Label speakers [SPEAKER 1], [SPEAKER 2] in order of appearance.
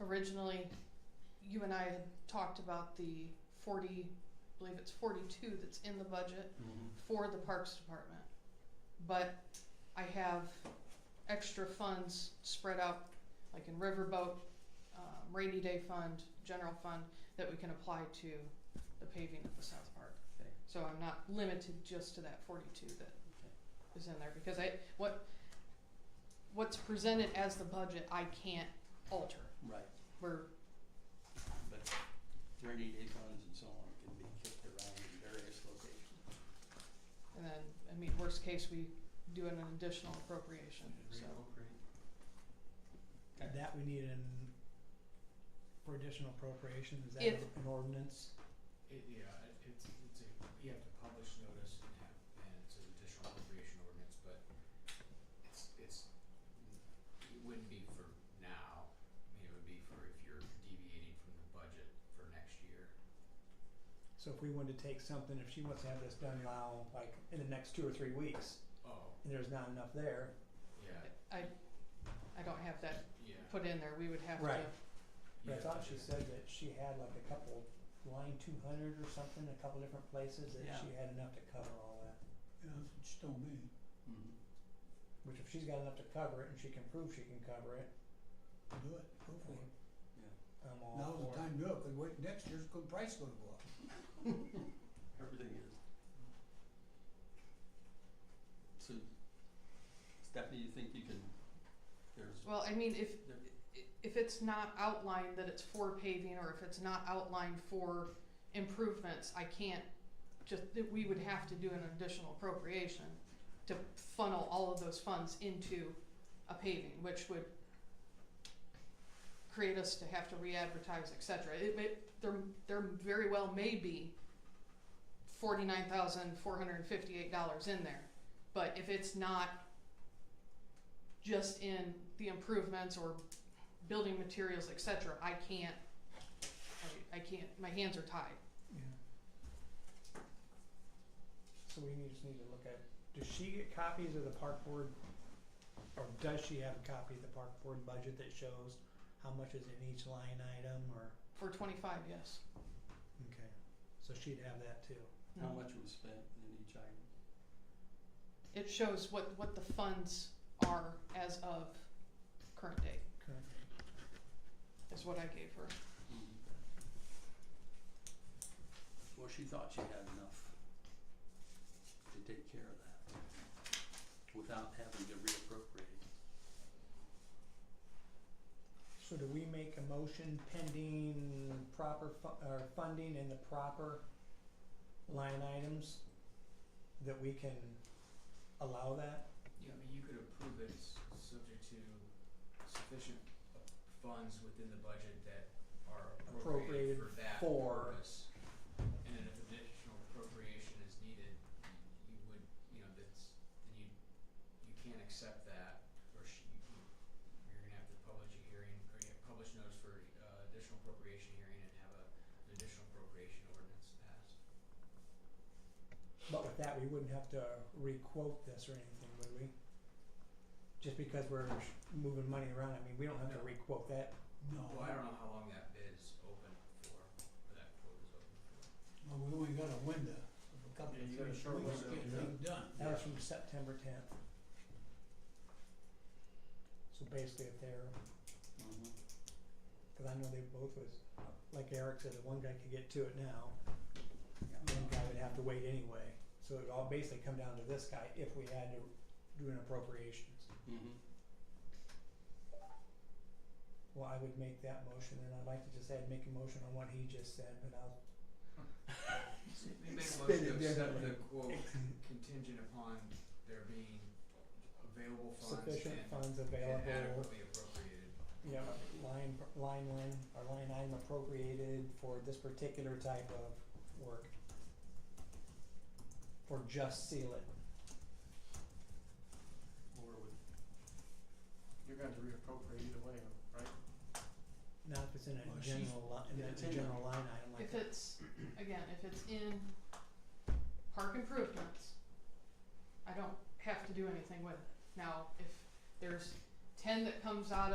[SPEAKER 1] originally, you and I had talked about the forty, I believe it's forty-two that's in the budget
[SPEAKER 2] Mm-hmm.
[SPEAKER 1] for the Parks Department. But I have extra funds spread out, like in Riverboat, um, rainy day fund, general fund, that we can apply to the paving of the South Park.
[SPEAKER 2] Okay.
[SPEAKER 1] So I'm not limited just to that forty-two that is in there, because I, what, what's presented as the budget, I can't alter.
[SPEAKER 2] Right,
[SPEAKER 1] We're,
[SPEAKER 2] but rainy day funds and so on can be kicked around in various locations.
[SPEAKER 1] and then, I mean, worst case, we do an additional appropriation, so.
[SPEAKER 2] Okay.
[SPEAKER 3] That we need an, for additional appropriation, is that
[SPEAKER 1] If-
[SPEAKER 3] an ordinance?
[SPEAKER 4] It, yeah, it- it's, it's a, you have to publish notice and have, and it's an additional appropriation ordinance, but it's, it's, it wouldn't be for now. I mean, it would be for if you're deviating from the budget for next year.
[SPEAKER 3] So if we wanted to take something, if she wants to have this done now, like in the next two or three weeks,
[SPEAKER 4] Oh,
[SPEAKER 3] and there's not enough there,
[SPEAKER 4] yeah,
[SPEAKER 1] I, I don't have that
[SPEAKER 4] yeah.
[SPEAKER 1] put in there, we would have to.
[SPEAKER 3] Right.
[SPEAKER 4] you
[SPEAKER 3] but I
[SPEAKER 4] have
[SPEAKER 3] thought
[SPEAKER 4] to
[SPEAKER 3] she
[SPEAKER 4] do-
[SPEAKER 3] said that she had like a couple, line two hundred or something, a couple different places, that
[SPEAKER 2] Yeah.
[SPEAKER 3] she had enough to cover all that.
[SPEAKER 5] Yeah, that's what she told me.
[SPEAKER 2] Mhm.
[SPEAKER 3] Which if she's got enough to cover it and she can prove she can cover it,
[SPEAKER 5] Do it, go for it.
[SPEAKER 3] I'm all for it.
[SPEAKER 5] Now's the time to do it, 'cause wait, next year's gonna, price gonna go up.
[SPEAKER 2] Mm-hmm. Everything is. So Stephanie, you think you can, there's,
[SPEAKER 1] Well, I mean, if,
[SPEAKER 2] there,
[SPEAKER 1] if it's not outlined that it's for paving, or if it's not outlined for improvements, I can't just, that we would have to do an additional appropriation to funnel all of those funds into a paving, which would create us to have to re-advertise, et cetera. It may, there, there very well may be forty-nine thousand, four hundred and fifty-eight dollars in there. But if it's not just in the improvements or building materials, et cetera, I can't, I, I can't, my hands are tied.
[SPEAKER 3] Yeah. So we need, just need to look at, does she get copies of the park board? Or does she have a copy of the park board budget that shows how much is in each line item or,
[SPEAKER 1] For twenty-five, yes.
[SPEAKER 3] okay, so she'd have that too.
[SPEAKER 2] how
[SPEAKER 1] No.
[SPEAKER 2] much was spent in each item?
[SPEAKER 1] It shows what, what the funds are as of current date,
[SPEAKER 3] Correct.
[SPEAKER 1] is what I gave her.
[SPEAKER 2] Hmm. Well, she thought she had enough to take care of that without having to reappropriate.
[SPEAKER 3] So do we make a motion pending proper fu- or funding in the proper line items? That we can allow that?
[SPEAKER 4] Yeah, I mean, you could approve it s- subject to sufficient funds within the budget that are
[SPEAKER 3] Appropriated
[SPEAKER 4] appropriated for that
[SPEAKER 3] for-
[SPEAKER 4] purpose. And then if additional appropriation is needed, you would, you know, that's, then you, you can't accept that, or sh- you, you're gonna have to publish a hearing, or you have to publish notice for, uh, additional appropriation hearing and have a, an additional appropriation ordinance passed.
[SPEAKER 3] But with that, we wouldn't have to requote this or anything, would we? Just because we're sh- moving money around, I mean, we don't have to
[SPEAKER 4] No.
[SPEAKER 3] requote that.
[SPEAKER 5] No,
[SPEAKER 4] Well, I don't know how long that bid is open for, or that quote is open for.
[SPEAKER 5] well, we only got a window of a couple
[SPEAKER 4] Yeah, you
[SPEAKER 5] of
[SPEAKER 4] got a
[SPEAKER 5] three
[SPEAKER 4] short
[SPEAKER 5] weeks
[SPEAKER 4] window,
[SPEAKER 5] to get
[SPEAKER 4] yeah.
[SPEAKER 5] things done.
[SPEAKER 3] That was from September tenth. So basically, if they're,
[SPEAKER 2] Mm-hmm.
[SPEAKER 3] cause I know they both was, like Eric said, the one guy could get to it now, the one guy would have to wait anyway. So it would all basically come down to this guy if we had to do an appropriations.
[SPEAKER 2] Mm-hmm.
[SPEAKER 3] Well, I would make that motion, and I'd like to just add, make a motion on what he just said, but I'll
[SPEAKER 4] We made a
[SPEAKER 3] Spin it
[SPEAKER 4] motion to accept
[SPEAKER 3] differently.
[SPEAKER 4] the quote contingent upon there being available funds and
[SPEAKER 3] sufficient funds available.
[SPEAKER 4] and adequately appropriated.
[SPEAKER 3] Yeah, line, line one, or line item appropriated for this particular type of work. For just seal it,
[SPEAKER 2] Or would
[SPEAKER 6] You're going to reappropriate either way, right?
[SPEAKER 3] not if it's in
[SPEAKER 5] Well,
[SPEAKER 3] a
[SPEAKER 5] she's-
[SPEAKER 3] general li-
[SPEAKER 2] yeah,
[SPEAKER 3] in
[SPEAKER 2] it's
[SPEAKER 3] a
[SPEAKER 2] in
[SPEAKER 3] general line item like
[SPEAKER 1] If
[SPEAKER 3] that.
[SPEAKER 1] it's, again, if it's in park improvements, I don't have to do anything with it. Now, if there's ten that comes out of